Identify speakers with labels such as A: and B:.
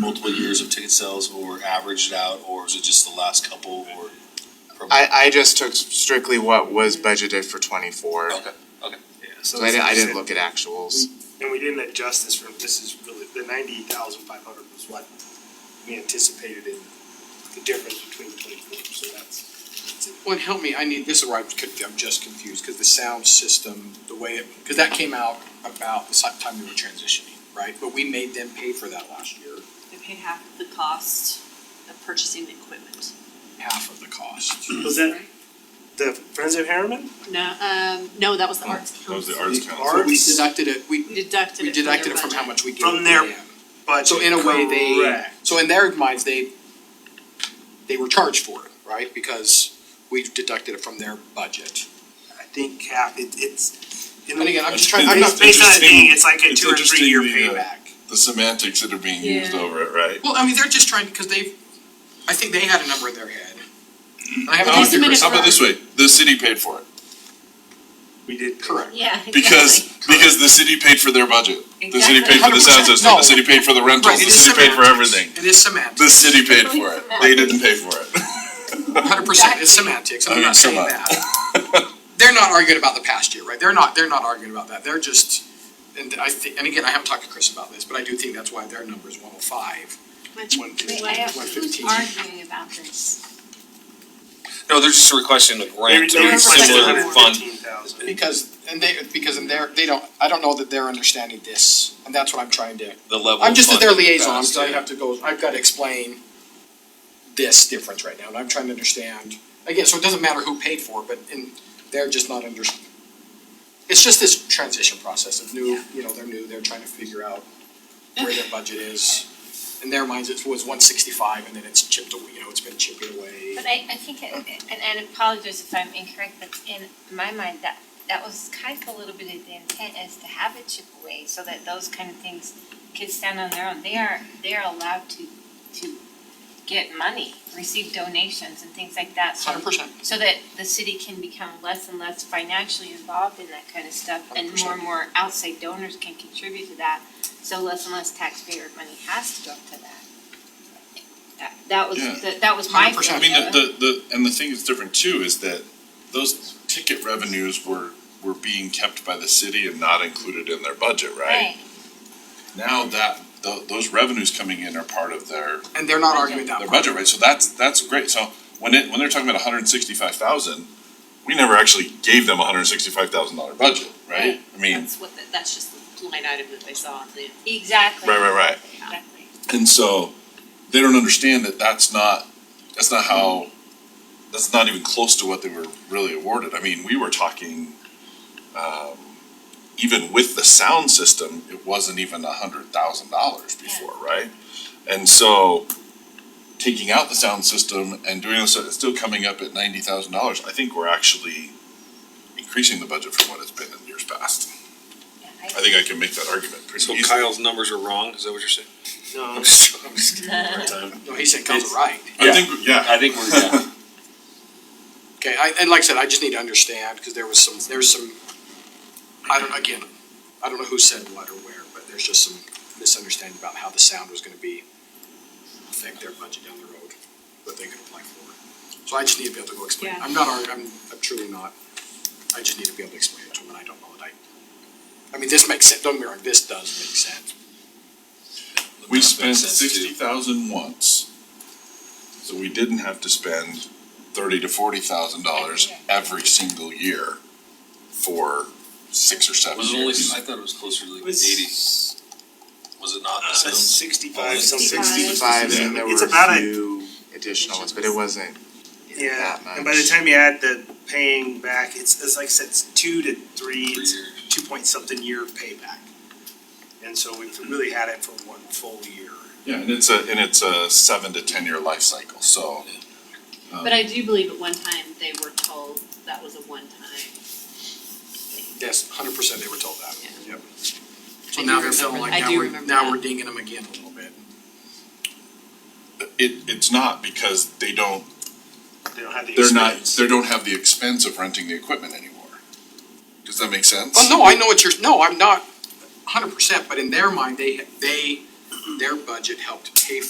A: multiple years of ticket sales or averaged out, or is it just the last couple or?
B: I, I just took strictly what was budgeted for twenty-four,
A: Okay.
C: Yeah,
B: so I didn't, I didn't look at actuals.
C: And we didn't adjust this from, this is really, the ninety thousand five hundred was what we anticipated in the difference between the twenty-four, so that's. that's it.
D: Well, and help me, I need, this is where I'm, conf- I'm just confused, cause the sound system, the way it, cause that came out about the si- time we were transitioning, right? But we made them pay for that last year,
E: They pay half of the cost of purchasing the equipment.
D: half of the cost.
C: Was that the Friends of Harriman?
E: No, um, no, that was the arts council.
D: So we
C: Arts.
D: deducted it, we,
E: Deducted
D: we
E: it from their budget.
D: deducted it from how much we gave
C: From their
D: them.
C: But
D: So in a way, they,
C: Correct.
D: so in their minds, they, they were charged for it, right? Because we deducted it from their budget.
C: I think Cap, it, it's. in a-
D: And again, I'm just trying, I'm
C: Based
D: not.
C: based on it
F: interesting-
C: being, it's like a
F: it's
C: two or three year
F: interesting the, uh,
C: payback.
F: the semantics that are being used
E: Yeah.
F: over it, right?
D: Well, I mean, they're just trying, because they've, I think they had a number in their head. I haven't.
E: They
F: How about-
E: submitted
F: How about
E: for-
F: this way, the city paid for it,
C: We did.
D: Correct.
G: Yeah.
F: because, because the city paid for their budget. The city paid for the sound
D: 100%.
F: system,
D: No.
F: the city paid for the
D: Right,
F: rentals,
D: it
F: the
D: is
F: city paid for
D: semantics.
F: everything.
D: It is semantics,
F: The city paid for it, they didn't pay for it.
D: hundred percent, it's semantics, I'm
F: Okay,
D: not saying
F: come on.
D: that. They're not arguing about the past year, right, they're not, they're not arguing about that, they're just, and I think, and again, I haven't talked to Chris about this, but I do think that's why their number is one oh five.
E: Which-
D: One
G: Wait,
D: fifteen,
G: I have,
D: one
G: who's
D: fifteen.
G: arguing about this?
H: No, they're just requesting a
C: They
H: grant
C: they
H: to a
E: requested
C: requested
H: similar
E: more.
H: fund.
C: 115,000.
D: Because, and they, because in their, they don't, I don't know that they're understanding this, and that's what I'm trying to,
H: the level.
D: I'm just
H: of
D: their
H: funding
D: liaison,
H: passed,
D: so I
H: yeah.
D: have to go, I've gotta explain this difference right now, and I'm trying to understand, again, so it doesn't matter who paid for it, but in, they're just not under. It's just this transition process of new, you know, they're new, they're trying to figure out where their budget is. In their minds, it was one sixty-five, and then it's chipped away, you know, it's been chipping away.
G: But I, I think, it- and and I apologize if I'm incorrect, but in my mind, that, that was kind of a little bit of the intent is to have it chip away so that those kind of things could stand on their own. They are, they are allowed to, to get money, receive donations and things like that, so.
D: Hundred percent,
G: so that the city can become less and less financially involved in that kind of stuff and more
D: 100%.
G: and more outside donors can contribute to that. So less and less taxpayer money has to go to that. That, that was,
F: Yeah.
G: that, that was my
D: 100%.
G: thing.
F: I mean, the, the, the, and the thing that's different too is that those ticket revenues were, were being kept by the city and not included in their budget, right?
G: Right,
F: Now that, tho- those revenues coming in are part of their,
D: and they're not arguing that
F: their
D: part.
F: budget, right? So that's, that's great. So when it, when they're talking about hundred and sixty-five thousand, we never actually gave them a hundred and sixty-five thousand dollar budget, right?
G: Right.
F: I mean,
E: That's what, the- that's just the line item that they saw on the.
G: exactly.
F: right, right, right.
G: Exactly.
F: And so they don't understand that that's not, that's not how, that's not even close to what they were really awarded. I mean, we were talking, um, even with the sound system, it wasn't even a hundred thousand dollars before, right? And so taking out the sound system and doing this, it's still coming up at ninety thousand dollars. I think we're actually increasing the budget from what it's been in years past.
G: Yeah,
F: I think I can make that argument pretty
H: So
F: easily.
H: Kyle's numbers are wrong, is that what you're saying?
C: No.
H: I'm just kidding.
D: No, he's saying Kyle's right.
F: I think, yeah.
H: I think we're, yeah.
D: Okay, I, and like I said, I just need to understand, cause there was some, there's some, I don't, again, I don't know who said what or where, but there's just some misunderstanding about how the sound was gonna be affect their budget down the road, what they could apply for. So I just need to be able to go explain,
E: Yeah.
D: I'm not, arg- I'm, I'm truly not, I just need to be able to explain it to them, and I don't know that I, I mean, this makes sense, don't get me wrong, this does make sense.
F: We
H: That makes
F: spent
H: sense, too.
F: sixty thousand once, so we didn't have to spend thirty to forty thousand dollars every single year for six or seven
A: Was it only,
F: years.
A: I thought it was closer to like
C: Was-
A: eighty. Was it not?
C: Uh, sixty-five, something.
B: Sixty-five, and there were
C: It's about
B: a
C: a-
B: few additional ones, but it wasn't
C: Yeah,
B: that
C: and by the
B: much.
C: time you add the paying back, it's, it's like I said, it's two to three,
A: Three
C: it's
A: years.
C: two point something year payback. And so we've really had it for one full year.
F: Yeah, and it's a, and it's a seven to ten year life cycle, so. um,
E: But I do believe at one time they were told that was a one-time thing.
D: Yes, hundred percent, they were told that,
E: Yeah.
D: yep. So
E: I
D: now
E: do
D: they're feeling
E: remember-
D: like,
E: I
D: now
E: do
D: we're,
E: remember
D: now
E: that.
D: we're dinging them again a little bit.
F: It, it's not because they don't,
C: They don't have the
F: they're not,
C: experience.
F: they don't have the expense of renting the equipment anymore. Does that make sense?
D: Oh, no, I know what you're, no, I'm not hundred percent, but in their mind, they, they, their budget helped pay for.